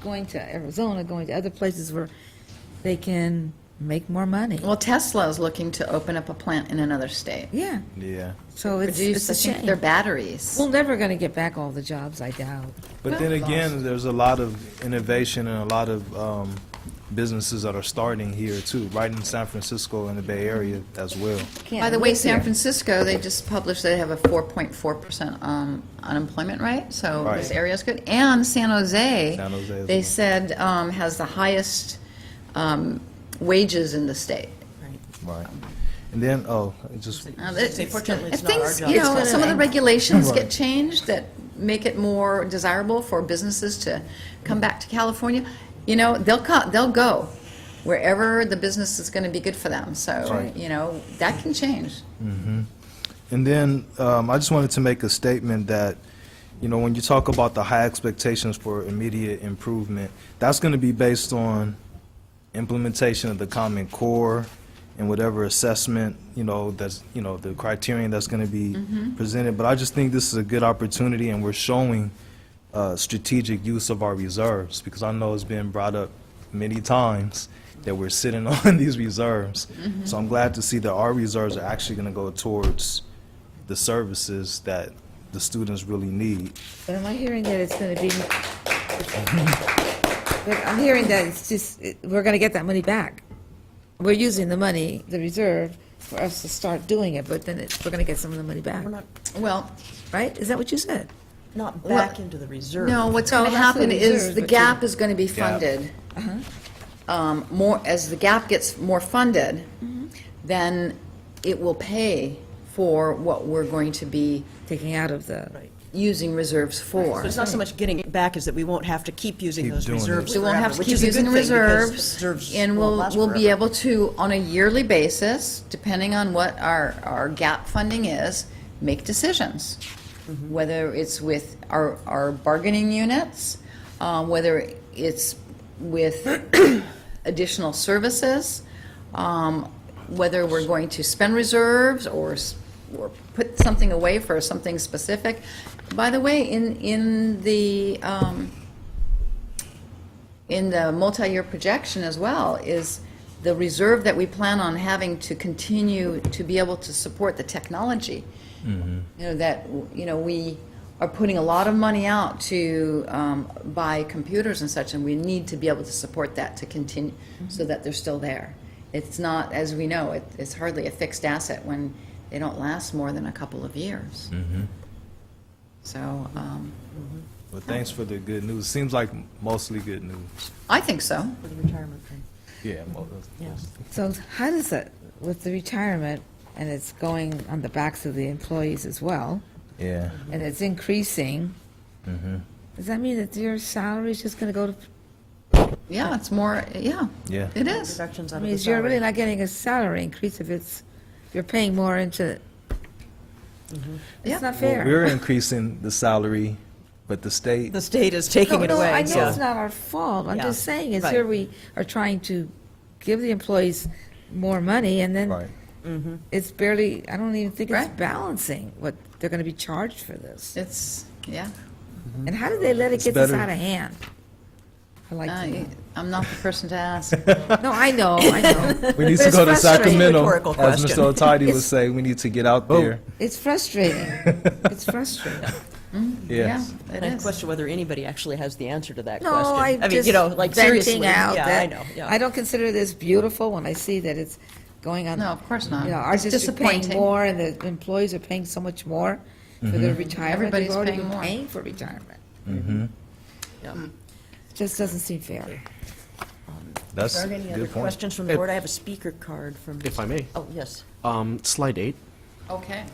going to Arizona, going to other places where they can make more money. Well, Tesla is looking to open up a plant in another state. Yeah, Yeah. so it's, it's Produce, I a think, shame. their batteries. We're never going to get back all the jobs, I doubt. But then again, there's a lot of innovation and a lot of um, businesses that are starting here too, right in San Francisco and the Bay Area as well. Can't By the way, live San here. Francisco, they just published they have a 4.4% um, unemployment rate, so this Right. area is good. And San Jose, San Jose as they well. said, um, has the highest um, wages in the state. Right. And then, oh, it just, Now, that- Say, fortunately, it's if not our things- job. You know, It's some of the gonna- regulations get changed that make it more desirable for businesses to come back to California. You know, they'll co- they'll go wherever the business is going to be good for them. So, Right. you know, that can change. and then um, I just wanted to make a statement that, you know, when you talk about the high expectations for immediate improvement, that's going to be based on implementation of the Common Core and whatever assessment, you know, that's, you know, the criterion that's going to be presented. But I just think this is a good opportunity, and we're showing uh, strategic use of our reserves, because I know it's been brought up many times that we're sitting on these reserves. So I'm glad to see that our reserves are actually going to go towards the services that the students really need. But am I hearing that it's going to be, but I'm hearing that it's just, it- we're going to get that money back. We're using the money, the reserve, for us to start doing it, but then it's, we're going to get some of the money back, We're not, Well, right? Is that what you said? not back into the reserve. no, what's No, going to that's the happen is reserves, the but you- Uh-huh. gap is going to be Gap. funded. Um, More, as the gap gets more funded, Mm-hmm. then it will pay for what we're going to be Taking out of the, Right. using reserves for. So it's not so much getting it back as that we won't have to keep using Keep those doing it. reserves We won't forever, have to which keep is a using good thing because reserves, reserves and won't we'll, last we'll be forever. able to, on a yearly basis, depending on what our, our gap funding is, make decisions. Mm-hmm. Whether it's with our, our bargaining units, uh, whether it's with additional services, um, whether we're going to spend reserves or, s- or put something away for something specific. By the way, in, in the, um, in the multi-year projection as well is the reserve that we plan on having to continue to be able to support the technology. You know, that, you know, we are putting a lot of money out to um, buy computers and such, and we need to be able to support that to continue, so that they're still there. It's not, as we know, it- it's hardly a fixed asset when they don't last more than a couple of years. So, um, But thanks for the good news. Seems like mostly good news. I think so. For the retirement thing. Yeah. mo- that's- that's- so how does that, with the retirement, and it's going on the backs of the employees as well, Yeah. and it's increasing, Mm-hmm. does that mean that your salary is just going to go to, Yeah, it's more, yeah. Yeah. It is. Reductions I out of mean, the is you're really salary. not getting a salary increase if it's, you're paying more into, Yeah. Mm-hmm. it's not Well, fair. We're increasing the salary, but the state, The state is taking No, it no, I away, know it's so. not our fault. I'm Yeah, just saying is right. here we are trying to give the employees more money and right, then it's barely, I don't even think it's Right. balancing what they're going to be charged for this. It's, yeah. And how did they let it It's get this better- out of hand? I like uh, to I- know. Uh, I'm not the person to ask. No, I know, I know. We need to It's go to frustrating. Sacramento, Rhetorical as question. Mr. Otidy would say, we need to get out there. It's frustrating. It's frustrating. Yeah, Yes. it And I is. question whether anybody actually has the answer to that No, question. I mean, just you know, like venting seriously, out yeah, that. I know, yeah. I don't consider this beautiful when I see that it's going on. No, of course uh, not. You know, ours It's is paying disappointing. more, and the employees are paying so much more for Mm-hmm. their retirement. Everybody's They've already paying been more. Paying for retirement. Yeah. Just doesn't seem fair. That's Are a there any other good point. questions from the board? I have a speaker card from. If I may, Oh, yes. um, slide eight. Okay.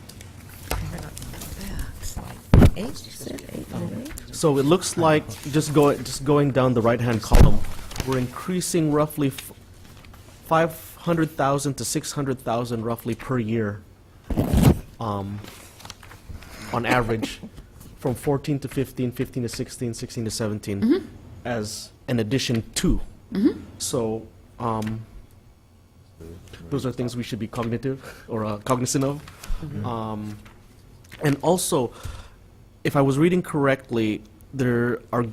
Eight, you said eight, eight? So it looks like, just go, just going down the right-hand column, we're increasing roughly five hundred thousand to six hundred thousand roughly per year, um, on average, from fourteen to 15, 15 to 16, 16 to 17 as an addition to. So, um, those are things we should be cognitive or uh, cognizant of. Um, and also, if I was reading correctly, there are